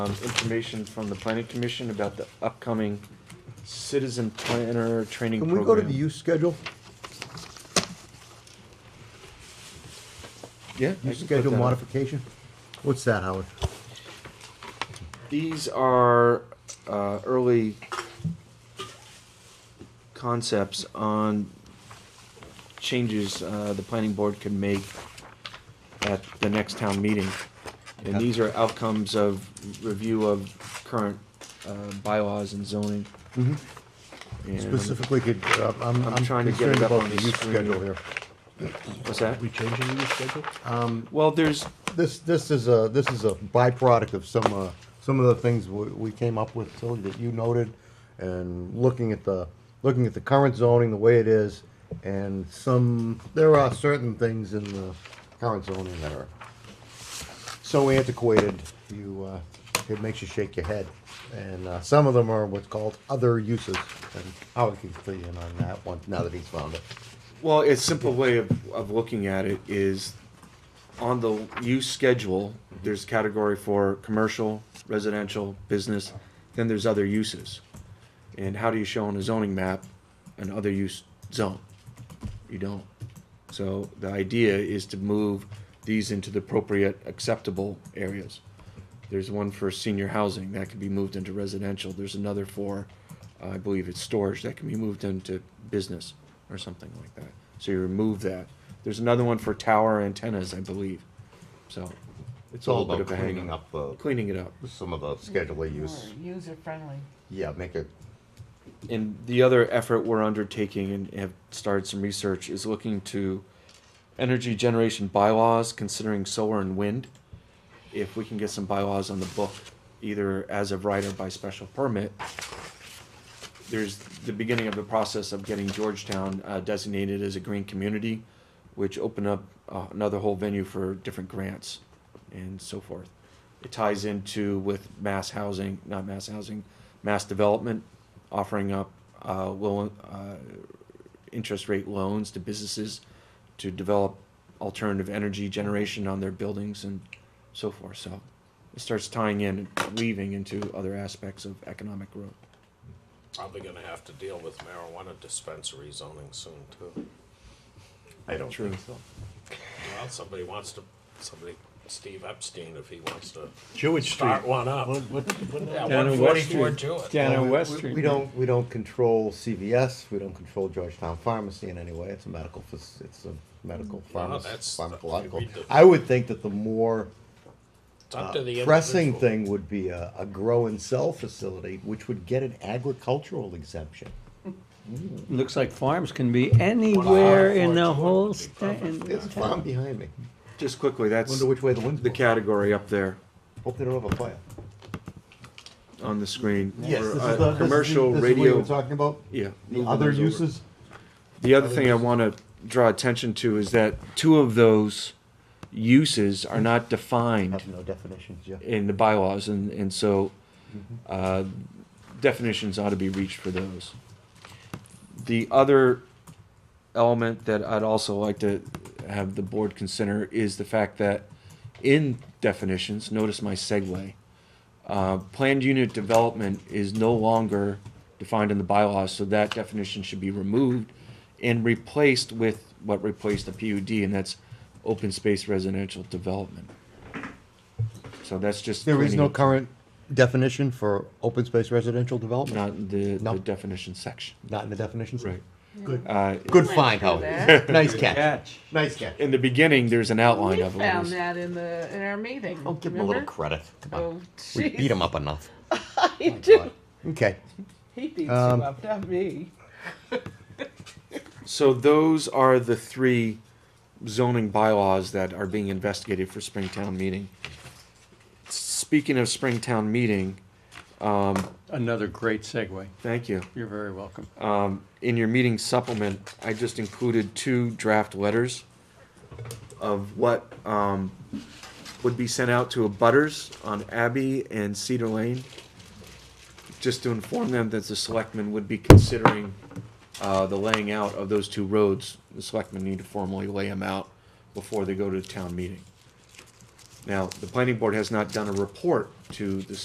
um, information from the planning commission about the upcoming citizen planner training Can program. we go to the use schedule? Yeah. I Use can put schedule that up. modification? What's that, Howard? These are uh, early concepts on changes uh, the planning board can make at the next town meeting. And these are outcomes of review of current uh, bylaws and zoning. Mm-hmm. And- Specifically, could, uh, I'm, I'm I'm trying to get it concerned up on about the the use screen. schedule here. What's that? We changing the schedule? Well, there's, This, this is a, this is a byproduct of some, uh, some of the things we, we came up with, Tilly, that you noted, and looking at the, looking at the current zoning, the way it is, and some, there are certain things in the current zoning that are so antiquated, you, uh, it makes you shake your head. And, uh, some of them are what's called other uses, and Howard can fill you in on that one, now that he's found it. well, a simple way of, of looking at it is on the use schedule, there's category for commercial, residential, business, then there's other uses. And how do you show on a zoning map an other use zone? You don't. So the idea is to move these into the appropriate acceptable areas. There's one for senior housing that can be moved into residential. There's another for, uh, I believe it's storage that can be moved into business or something like that. So you remove that. There's another one for tower antennas, I believe. So it's It's all all bit about of a hang cleaning up the, Cleaning it up. some of the schedule of use. User friendly. Yeah, make it, And the other effort we're undertaking and have started some research is looking to energy generation bylaws, considering solar and wind. If we can get some bylaws on the book, either as of right or by special permit, there's the beginning of the process of getting Georgetown uh, designated as a green community, which opened up uh, another whole venue for different grants and so forth. It ties into with mass housing, not mass housing, mass development, offering up uh, low, uh, interest rate loans to businesses to develop alternative energy generation on their buildings and so forth. So it starts tying in, weaving into other aspects of economic growth. Probably gonna have to deal with marijuana dispensary zoning soon too. I don't True. think so. Well, somebody wants to, somebody, Steve Epstein, if he wants to Jewett start one up. Yeah, Down one on West forty-four Street. Jewett. Down on West We- Street. We don't, we don't control CVS, we don't control Georgetown Pharmacy in any way, it's a medical, fac- it's a medical pharmacy, that's- pharmacological. we do- I would think that the more It's up to the pressing individual. thing would be a, a grow and sell facility, which would get an agricultural exemption. Looks like farms can be Well, anywhere in farm the would whole be state. perfect. There's a farm behind me, Just quickly, that's wonder which way the wind's the blowing. category up there Hope they don't have a fire. on the screen. Yes, for, this is uh, the, this is the- Commercial this is what you radio, were talking about? yeah. The moving other those over. uses? The other thing I want to draw attention to is that two of those uses are not defined Have no definitions, yeah. in the bylaws, and, and so, uh, definitions ought to be reached for those. The other element that I'd also like to have the board consider is the fact that in definitions, notice my segue, uh, planned unit development is no longer defined in the bylaws, so that definition should be removed and replaced with what replaced the PUD, and that's open space residential development. So that's just. There is cleaning no up- current definition for open space residential development? Not in the, No. the definition section. Not in the definitions? Good. Uh, Good Went find, through Howard. that. Nice catch. Catch. Nice catch. in the beginning, there's an outline We of it. found that in the, in our meeting. Don't give him a little remember? credit. Come Oh, on. We jeez. beat him up enough. He did. Okay. He beats you Um, up, not me. So those are the three zoning bylaws that are being investigated for Springtown meeting. Speaking of Springtown meeting, Another great segue. thank you. You're very welcome. in your meeting supplement, I just included two draft letters of what um, would be sent out to abutters on Abbey and Cedar Lane, just to inform them that the selectmen would be considering uh, the laying out of those two roads. The selectmen need to formally lay them out before they go to town meeting. Now, the planning board has not done a report to the